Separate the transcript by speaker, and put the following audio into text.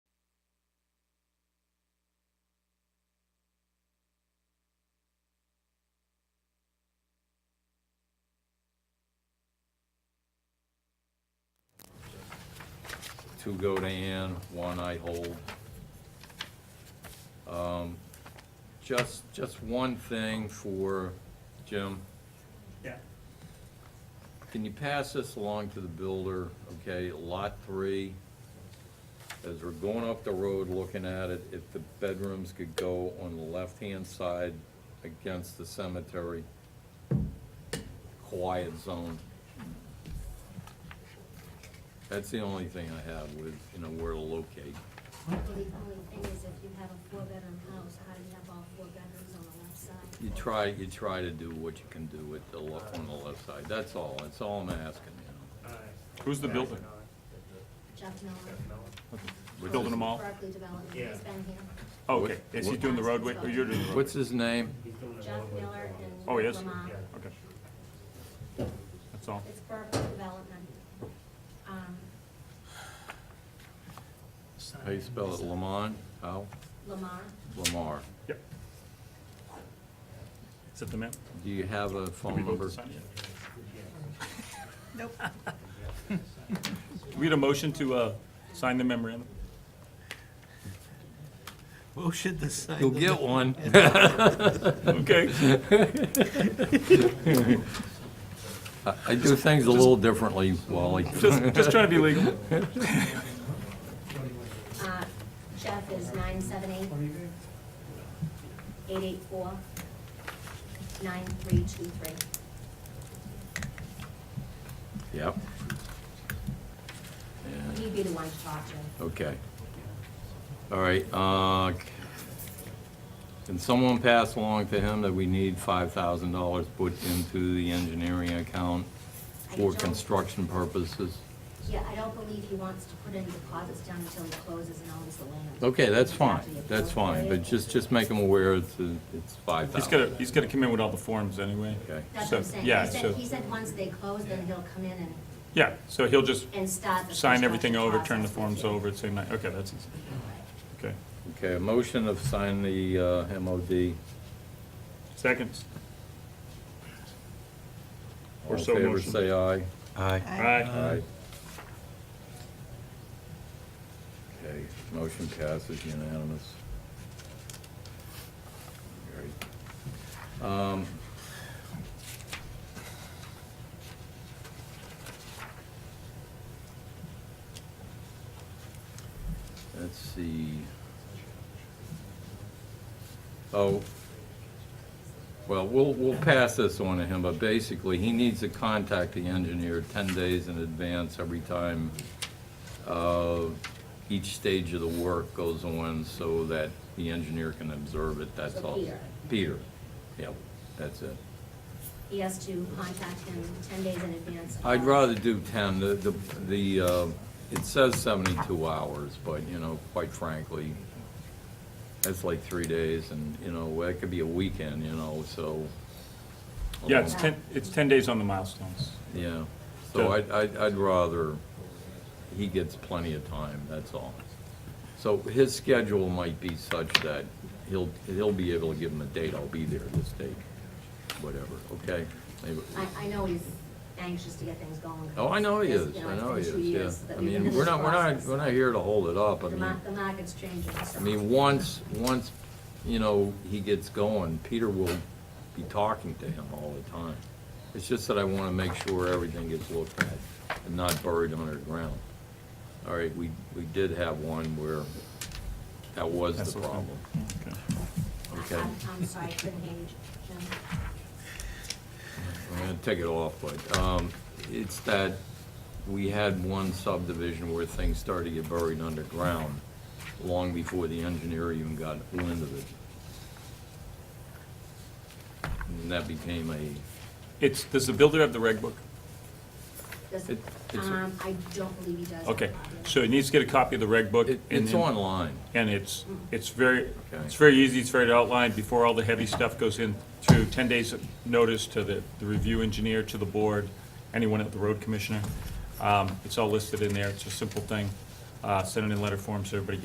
Speaker 1: two go to Ann, one I hold. Um, Just, just one thing for Jim.
Speaker 2: Yeah.
Speaker 1: Can you pass this along to the builder, okay, lot three? As we're going up the road looking at it, if the bedrooms could go on the left-hand side against the cemetery, quiet zone. That's the only thing I have with, you know, where to locate.
Speaker 3: Well, the only thing is if you have a four-bedroom house, how do you have all four bedrooms on the left side?
Speaker 1: You try, you try to do what you can do with the left, on the left side, that's all, that's all I'm asking, you
Speaker 4: Who's the builder?
Speaker 3: Jeff Miller.
Speaker 1: know. What's
Speaker 4: Building
Speaker 1: his-
Speaker 4: them all?
Speaker 3: Berkeley Development, he's
Speaker 2: Yeah.
Speaker 3: been here.
Speaker 4: Oh, Okay, is he doing the roadway, or you're doing the roadway?
Speaker 1: What's his name?
Speaker 3: Jeff Miller and.
Speaker 4: Oh, he is?
Speaker 3: Lamont.
Speaker 4: Okay. That's all.
Speaker 3: It's Berkeley Development. Um,
Speaker 1: How you spell it, Lamont? How?
Speaker 3: Lamar,
Speaker 1: Lamar.
Speaker 4: Yep. Is that the man?
Speaker 1: Do you have a phone number?
Speaker 5: Nope.
Speaker 4: We had a motion to uh, sign the memorandum.
Speaker 5: Motion to sign.
Speaker 1: You'll
Speaker 5: the-
Speaker 1: get one.
Speaker 4: Okay.
Speaker 1: I- I do things a little differently, Wally.
Speaker 4: Just, just trying to be legal.
Speaker 3: uh, Jeff is nine seven eight, eight eight four, nine three two three.
Speaker 1: Yep. And,
Speaker 3: He'd be the one to talk to.
Speaker 1: okay. All right, uh, can someone pass along to him that we need five thousand dollars put into the engineering account for construction purposes?
Speaker 3: Yeah, I don't believe he wants to put any deposits down until he closes and owns the land.
Speaker 1: Okay, that's fine, that's fine, but just, just make him aware it's, it's five
Speaker 4: He's
Speaker 1: thousand.
Speaker 4: gonna, he's gonna come in with all the forms anyway.
Speaker 1: Okay.
Speaker 3: That's what I'm
Speaker 4: So,
Speaker 3: saying.
Speaker 4: yeah,
Speaker 3: He
Speaker 4: so-
Speaker 3: said, he said once they close, then he'll come in and,
Speaker 4: Yeah, so he'll just
Speaker 3: and start the.
Speaker 4: sign everything
Speaker 3: construction
Speaker 4: over, turn the
Speaker 3: process with
Speaker 4: forms
Speaker 3: you.
Speaker 4: over, say, "No," okay, that's easy. Okay.
Speaker 1: Okay, a motion of sign the uh, MOD.
Speaker 4: Seconds. Or
Speaker 1: All in
Speaker 4: so
Speaker 1: favor,
Speaker 4: motion.
Speaker 1: say aye.
Speaker 5: Aye.
Speaker 3: Uh,
Speaker 4: Aye.
Speaker 1: Okay, motion passes unanimous. Great. Um, Let's see. Oh, well, we'll, we'll pass this on to him, but basically, he needs to contact the engineer 10 days in advance every time uh, each stage of the work goes on so that the engineer can observe it, that's
Speaker 3: So
Speaker 1: all.
Speaker 3: Peter.
Speaker 1: Peter, yep, that's it.
Speaker 3: He has to contact him ten days in advance. of-
Speaker 1: I'd rather do 10, the, the, the uh, it says 72 hours, but, you know, quite frankly, that's like three days, and, you know, that could be a weekend, you know, so. Um,
Speaker 4: Yeah, it's 10, it's 10 days on the milestones.
Speaker 1: Yeah, so I'd, I'd I'd rather, he gets plenty of time, that's all. So his schedule might be such that he'll, he'll be able to give him a date, I'll be there this date, whatever, okay? Maybe-
Speaker 3: I, I know he's anxious to get things going.
Speaker 1: Oh, I know he
Speaker 3: because,
Speaker 1: is,
Speaker 3: you
Speaker 1: I
Speaker 3: it's
Speaker 1: know
Speaker 3: been
Speaker 1: he
Speaker 3: two years
Speaker 1: is, yeah.
Speaker 3: that
Speaker 1: I
Speaker 3: we've been
Speaker 1: mean,
Speaker 3: in
Speaker 1: we're
Speaker 3: this
Speaker 1: not, we're not,
Speaker 3: process.
Speaker 1: we're not here to hold it up, I
Speaker 3: The
Speaker 1: mean.
Speaker 3: mar- the market's changing. so-
Speaker 1: I mean, once, once, you know, he gets going, Peter will be talking to him all the time. It's just that I want to make sure everything gets looked at and not buried underground. All right, we, we did have one where that was
Speaker 4: That's
Speaker 1: the
Speaker 4: okay.
Speaker 1: problem.
Speaker 4: Okay.
Speaker 3: I-
Speaker 1: okay.
Speaker 3: I'm, I'm sorry, I couldn't hear you, Jim.
Speaker 1: I'm gonna take it off, but, um, it's that we had one subdivision where things started to get buried underground long before the engineer even got wind of it. And that became a,
Speaker 4: It's, does the builder have the reg book?
Speaker 3: Does-
Speaker 1: It- it's a-
Speaker 3: Um, I don't believe he does.
Speaker 4: Okay, so he needs to get a copy of the reg book.
Speaker 1: it,
Speaker 4: and
Speaker 1: it's
Speaker 4: then-
Speaker 1: online.
Speaker 4: And it's, it's very,
Speaker 1: Okay.
Speaker 4: it's very easy, it's very outlined, before all the heavy stuff goes in, through 10 days of notice to the, the review engineer, to the board, anyone at the road commissioner. Um, It's all listed in there, it's a simple thing. Uh, Send it in letter form so everybody